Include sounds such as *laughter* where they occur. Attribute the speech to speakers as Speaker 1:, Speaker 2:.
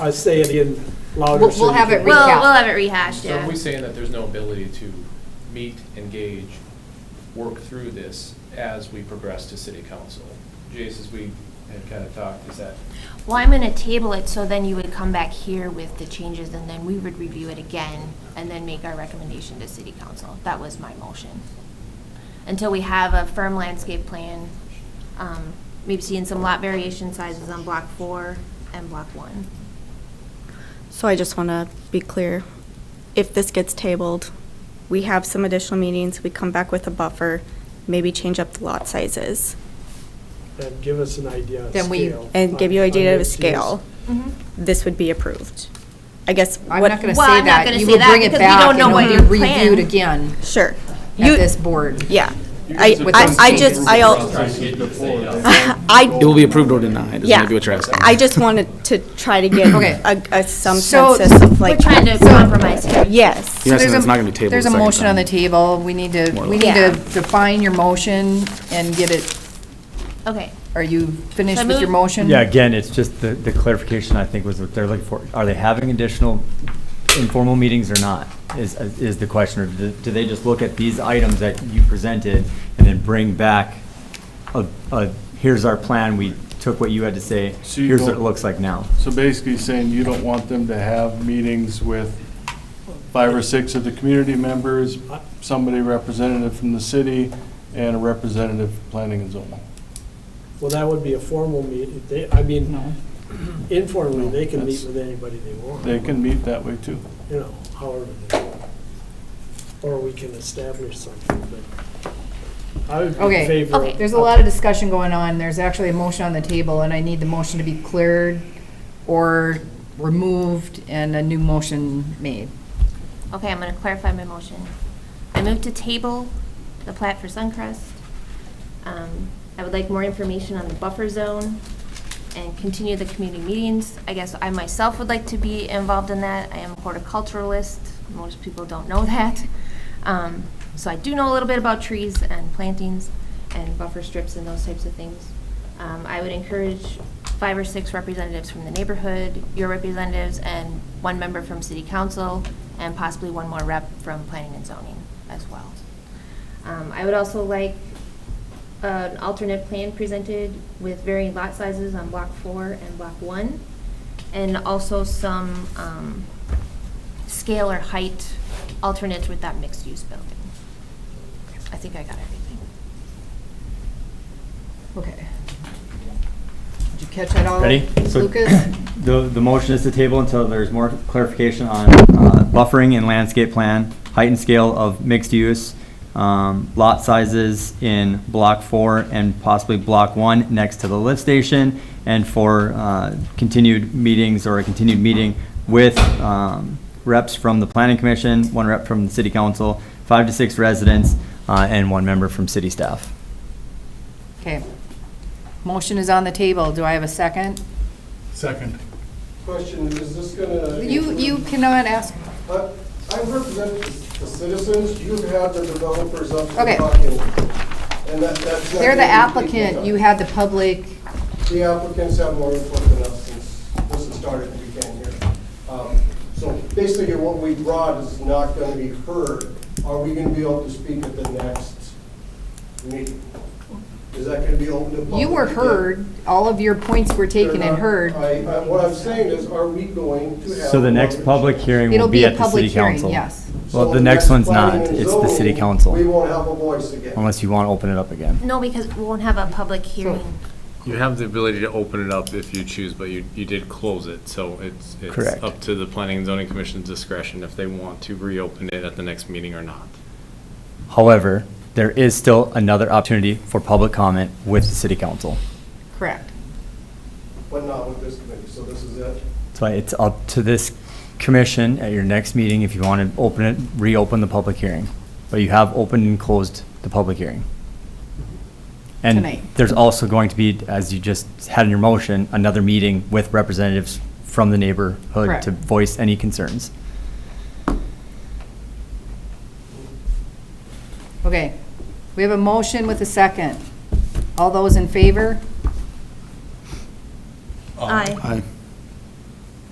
Speaker 1: I say it again louder.
Speaker 2: We'll-
Speaker 1: so
Speaker 2: we'll
Speaker 1: you
Speaker 2: have
Speaker 1: can-
Speaker 2: it
Speaker 3: We'll,
Speaker 2: Recap.
Speaker 3: we'll have it rehashed,
Speaker 4: So
Speaker 3: yeah.
Speaker 4: are we saying that there's no ability to meet, engage, work through this as we progress to city council? Jace, as we had kind of talked, is that,
Speaker 3: Well, I'm gonna table it, so then you would come back here with the changes, and then we would review it again, and then make our recommendation to city council. That was my motion. Until we have a firm landscape plan, um, maybe seeing some lot variation sizes on block four and block one.
Speaker 5: So I just want to be clear, if this gets tabled, we have some additional meetings, we come back with a buffer, maybe change up the lot sizes,
Speaker 1: And give us an idea of
Speaker 2: Then we-
Speaker 1: scale.
Speaker 5: and give you
Speaker 1: on-
Speaker 5: an
Speaker 1: on
Speaker 5: idea of
Speaker 1: mixed
Speaker 5: scale,
Speaker 1: use.
Speaker 2: Mm-hmm.
Speaker 5: this would be approved. I guess
Speaker 2: I'm
Speaker 5: what.
Speaker 2: not going to
Speaker 3: Well,
Speaker 2: say
Speaker 3: I'm not
Speaker 2: that.
Speaker 3: gonna
Speaker 2: You
Speaker 3: say
Speaker 2: will
Speaker 3: that
Speaker 2: bring it
Speaker 3: because we
Speaker 2: back
Speaker 3: don't
Speaker 2: and
Speaker 3: know
Speaker 2: it'll
Speaker 3: what
Speaker 2: be
Speaker 3: your
Speaker 2: Reviewed
Speaker 3: plan-
Speaker 2: again
Speaker 5: Sure.
Speaker 2: at
Speaker 5: You-
Speaker 2: this board.
Speaker 5: Yeah.
Speaker 4: You
Speaker 5: I,
Speaker 4: guys are
Speaker 5: I,
Speaker 2: trying
Speaker 5: I
Speaker 2: to
Speaker 5: just,
Speaker 2: change
Speaker 5: I,
Speaker 2: the
Speaker 5: al- *laughs* I,
Speaker 6: It will be approved or denied, is
Speaker 5: Yeah.
Speaker 6: maybe what you're asking.
Speaker 5: I just wanted to try to get
Speaker 2: Okay.
Speaker 5: a, a some
Speaker 2: So-
Speaker 5: census of
Speaker 3: We're
Speaker 5: like,
Speaker 3: trying to compromise here.
Speaker 5: yes.
Speaker 6: You're not saying
Speaker 2: there's
Speaker 6: it's
Speaker 2: a-
Speaker 6: not gonna be tabled
Speaker 2: There's a
Speaker 6: the second
Speaker 2: motion on
Speaker 6: time.
Speaker 2: the table. We need to,
Speaker 6: More or
Speaker 2: we need
Speaker 5: less.
Speaker 2: to
Speaker 5: Yeah.
Speaker 2: define your motion and get it,
Speaker 3: Okay,
Speaker 2: are you
Speaker 3: So I
Speaker 2: finished with your
Speaker 3: move-
Speaker 2: motion?
Speaker 7: Yeah, again, it's just the, the clarification, I think, was what they're looking for. Are they having additional informal meetings or not, is, is the question. Or do do they just look at these items that you presented and then bring back a, a, here's our plan, we took what you had to say,
Speaker 8: So you
Speaker 7: here's what it
Speaker 8: don't-
Speaker 7: looks like now?
Speaker 8: So basically saying you don't want them to have meetings with five or six of the community members, somebody representative from the city, and a representative from planning and zoning.
Speaker 1: Well, that would be a formal meeting. They, I mean,
Speaker 2: No.
Speaker 1: informally, they can meet
Speaker 8: That's-
Speaker 1: with anybody they want.
Speaker 8: They can meet that way too.
Speaker 1: You know, however they want. Or we can establish something, but I would be in
Speaker 2: Okay.
Speaker 1: favor.
Speaker 3: Okay.
Speaker 2: There's a lot of discussion going on. There's actually a motion on the table, and I need the motion to be cleared or removed and a new motion made.
Speaker 3: okay, I'm gonna clarify my motion. I move to table the plat for Suncrest. Um, I would like more information on the buffer zone and continue the community meetings. I guess I myself would like to be involved in that. I am a horticulturalist. Most people don't know *laughs* that. Um, So I do know a little bit about trees and plantings and buffer strips and those types of things. Um, I would encourage five or six representatives from the neighborhood, your representatives, and one member from city council, and possibly one more rep from planning and zoning as well. Um, I would also like an alternate plan presented with varying lot sizes on block four and block one, and also some um, scale or height alternates with that mixed-use building. I think I got everything.
Speaker 2: Okay. Did you catch that all?
Speaker 7: Ready? So-
Speaker 2: Lucas?
Speaker 7: *coughs* The, the motion is to table until there's more clarification on uh, buffering and landscape plan, height and scale of mixed use, um, lot sizes in block four and possibly block one next to the lift station, and for uh, continued meetings or a continued meeting with um, reps from the planning commission, one rep from the city council, five to six residents, uh, and one member from city staff.
Speaker 2: Okay. Motion is on the table. Do I have a second?
Speaker 8: Second.
Speaker 9: Question, is this gonna?
Speaker 2: You, you cannot ask.
Speaker 9: I I represent the citizens, you've had the developers up
Speaker 2: Okay.
Speaker 9: there talking. And that, that's. not
Speaker 2: They're the
Speaker 9: gonna be
Speaker 2: applicant. You
Speaker 9: equal.
Speaker 2: had the public.
Speaker 9: The applicants have more input than us since this has started, we can't hear. Um, So basically, what we brought is not gonna be heard. Are we gonna be able to speak at the next meeting? Is that gonna be open to public?
Speaker 2: You were
Speaker 9: again?
Speaker 2: heard. All of your points were taken
Speaker 9: They're
Speaker 2: and
Speaker 9: not-
Speaker 2: heard.
Speaker 9: I, I, what I'm saying is, are we going to have?
Speaker 7: So the next public hearing
Speaker 2: It'll
Speaker 7: will
Speaker 2: be
Speaker 7: be
Speaker 2: a
Speaker 7: at the
Speaker 2: public
Speaker 7: city
Speaker 2: hearing,
Speaker 7: council.
Speaker 2: yes.
Speaker 7: Well,
Speaker 9: So
Speaker 7: the next one's
Speaker 9: planning
Speaker 7: not,
Speaker 9: and
Speaker 7: it's the city
Speaker 9: zoning,
Speaker 7: council.
Speaker 9: We won't have a voice again.
Speaker 7: Unless you want to open it up again.
Speaker 3: No, because we won't have a public hearing.
Speaker 4: You have the ability to open it up if you choose, but you, you did close it, so it's, it's
Speaker 7: Correct.
Speaker 4: up to the planning and zoning commission's discretion if they want to reopen it at the next meeting or not.
Speaker 7: However, there is still another opportunity for public comment with the city council.
Speaker 2: Correct.
Speaker 9: But not with this committee, so this is it.
Speaker 7: So it's up to this commission at your next meeting if you want to open it, reopen the public hearing. But you have opened and closed the public hearing.
Speaker 2: Tonight.
Speaker 7: And there's also going to be, as you just had in your motion, another meeting with representatives from the neighborhood
Speaker 2: Correct.
Speaker 7: to voice any concerns.
Speaker 2: Okay. We have a motion with a second. All those in favor?
Speaker 3: Aye.